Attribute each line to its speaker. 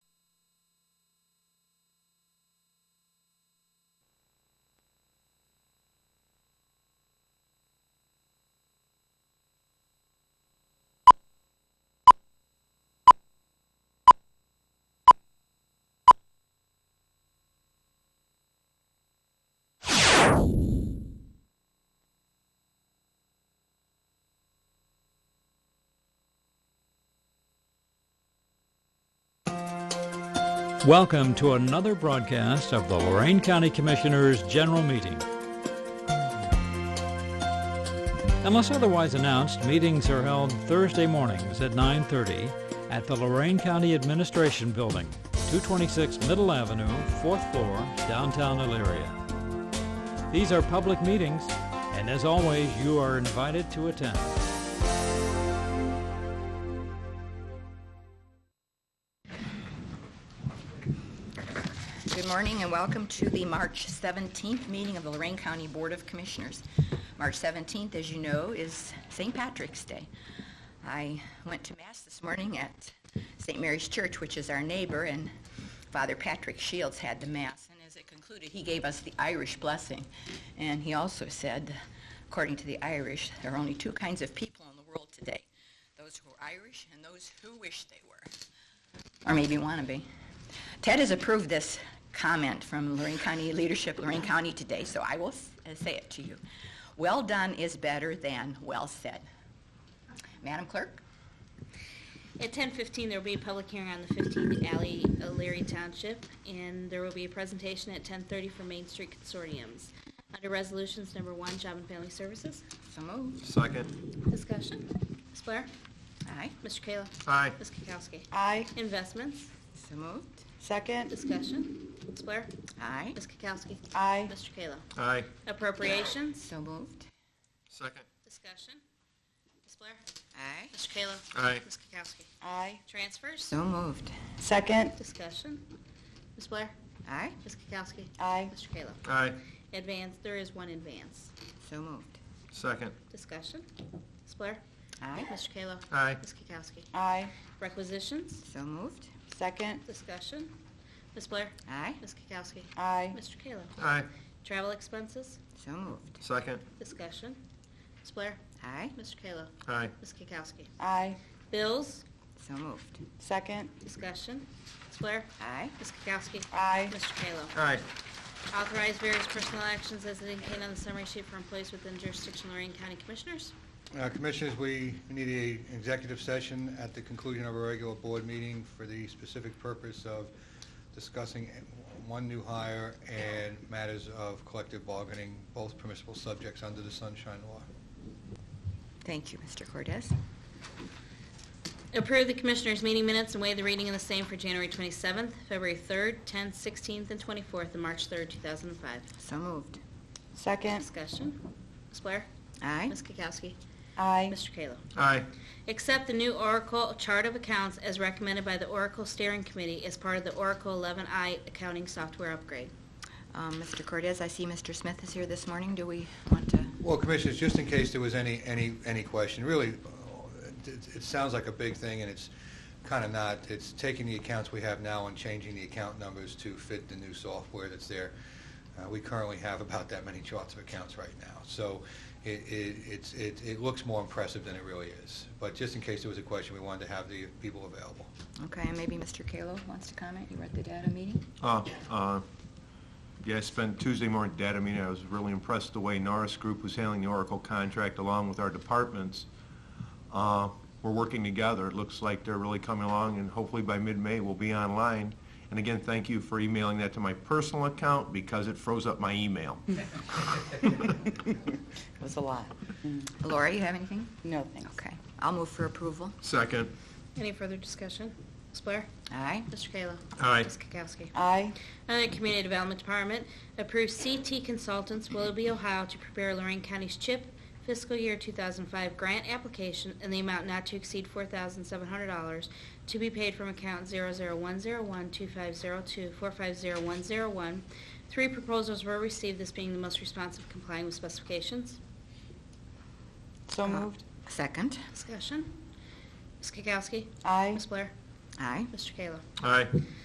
Speaker 1: Welcome to another broadcast of the Lorraine County Commissioners' General Meeting. Unless otherwise announced, meetings are held Thursday mornings at 9:30 at the Lorraine County Administration Building, 226 Middle Avenue, 4th floor, downtown Elyria. These are public meetings, and as always, you are invited to attend.
Speaker 2: Good morning and welcome to the March 17th meeting of the Lorraine County Board of Commissioners. March 17th, as you know, is St. Patrick's Day. I went to Mass this morning at St. Mary's Church, which is our neighbor, and Father Patrick Shields had the Mass. And as it concluded, he gave us the Irish blessing. And he also said, according to the Irish, there are only two kinds of people in the world today, those who are Irish and those who wish they were or maybe wanna be. Ted has approved this comment from Lorraine County leadership, Lorraine County today, so I will s- uh, say it to you. Well done is better than well said. Madam Clerk?
Speaker 3: At ten fifteen, there will be a public hearing on the fifteenth alley, uh, Leary Township, and there will be a presentation at ten thirty for Main Street Consortiums. Under Resolutions Number One, Job and Family Services,
Speaker 2: So moved.
Speaker 4: Second.
Speaker 3: discussion. Ms. Blair?
Speaker 2: Aye.
Speaker 3: Mr. Kayla?
Speaker 4: Aye.
Speaker 3: Ms. Kukowski?
Speaker 5: Aye.
Speaker 3: Investments,
Speaker 2: So moved.
Speaker 5: Second.
Speaker 3: discussion. Ms. Blair?
Speaker 2: Aye.
Speaker 3: Ms. Kukowski?
Speaker 5: Aye.
Speaker 3: Mr. Kayla?
Speaker 4: Aye.
Speaker 3: Appropriations,
Speaker 2: So moved.
Speaker 4: Second.
Speaker 3: discussion. Ms. Blair?
Speaker 2: Aye.
Speaker 3: Mr. Kayla?
Speaker 4: Aye.
Speaker 3: Ms. Kukowski?
Speaker 5: Aye.
Speaker 3: Transfers,
Speaker 2: So moved.
Speaker 5: Second.
Speaker 3: discussion. Ms. Blair?
Speaker 2: Aye.
Speaker 3: Ms. Kukowski?
Speaker 5: Aye.
Speaker 3: Mr. Kayla?
Speaker 4: Aye.
Speaker 3: Advance, there is one advance.
Speaker 2: So moved.
Speaker 4: Second.
Speaker 3: Discussion. Ms. Blair?
Speaker 2: Aye.
Speaker 3: Mr. Kayla?
Speaker 4: Aye.
Speaker 3: Ms. Kukowski?
Speaker 5: Aye.
Speaker 3: Requisitions?
Speaker 2: So moved.
Speaker 5: Second.
Speaker 3: Discussion. Ms. Blair?
Speaker 2: Aye.
Speaker 3: Ms. Kukowski?
Speaker 5: Aye.
Speaker 3: Mr. Kayla?
Speaker 4: Aye.
Speaker 3: Travel expenses?
Speaker 2: So moved.
Speaker 4: Second.
Speaker 3: Discussion. Ms. Blair?
Speaker 2: Aye.
Speaker 3: Mr. Kayla?
Speaker 4: Aye.
Speaker 3: Ms. Kukowski?
Speaker 5: Aye.
Speaker 3: Bills?
Speaker 2: So moved.
Speaker 5: Second.
Speaker 3: Discussion. Ms. Blair?
Speaker 2: Aye.
Speaker 3: Ms. Kukowski?
Speaker 5: Aye.
Speaker 3: Mr. Kayla?
Speaker 4: Aye.
Speaker 3: Authorize various personal actions as indicated on the summary sheet for employees within jurisdiction of Lorraine County Commissioners.
Speaker 6: Uh, Commissioners, we need a executive session at the conclusion of our regular board meeting for the specific purpose of discussing one new hire and matters of collective bargaining, both permissible subjects under the Sunshine Law.
Speaker 2: Thank you, Mr. Cortez.
Speaker 3: Approve the Commissioners' meeting minutes and waive the reading of the same for January 27th, February 3rd, 10th, 16th, and 24th, and March 3rd, 2005.
Speaker 2: So moved.
Speaker 5: Second.
Speaker 3: Discussion. Ms. Blair?
Speaker 2: Aye.
Speaker 3: Ms. Kukowski?
Speaker 5: Aye.
Speaker 3: Mr. Kayla?
Speaker 4: Aye.
Speaker 3: Accept the new Oracle Chart of Accounts as recommended by the Oracle Steering Committee as part of the Oracle 11i accounting software upgrade.
Speaker 2: Um, Mr. Cortez, I see Mr. Smith is here this morning. Do we want to?
Speaker 6: Well, Commissioners, just in case there was any, any, any question, really, uh, it, it sounds like a big thing, and it's kind of not. It's taking the accounts we have now and changing the account numbers to fit the new software that's there. Uh, we currently have about that many charts of accounts right now, so it, it, it's, it, it looks more impressive than it really is. But just in case there was a question, we wanted to have the people available.
Speaker 2: Okay, and maybe Mr. Kalo wants to comment. You were at the data meeting.
Speaker 4: Uh, uh, Yeah, I spent Tuesday morning at data meeting. I was really impressed the way Norris Group was handling the Oracle contract along with our departments. Uh, We're working together. It looks like they're really coming along, and hopefully by mid-May, we'll be online. And again, thank you for emailing that to my personal account because it froze up my email.
Speaker 5: It was a lot.
Speaker 2: Laura, you have anything?
Speaker 5: No thanks.
Speaker 2: Okay, I'll move for approval.
Speaker 4: Second.
Speaker 3: Any further discussion? Ms. Blair?
Speaker 2: Aye.
Speaker 3: Mr. Kayla?
Speaker 4: Aye.
Speaker 3: Ms. Kukowski?
Speaker 5: Aye.
Speaker 3: Under the Community Development Department, approve CT Consultants Willoughby, Ohio to prepare Lorraine County's CHIP fiscal year 2005 grant application in the amount not to exceed $4,700 to be paid from account 001012502450101. Three proposals were received, this being the most responsive complying with specifications.
Speaker 2: Uh,
Speaker 5: So moved.
Speaker 2: Second.
Speaker 3: Discussion. Ms. Kukowski.
Speaker 5: Aye.
Speaker 3: Ms. Blair.
Speaker 2: Aye.
Speaker 3: Mr. Kayla.
Speaker 4: Aye.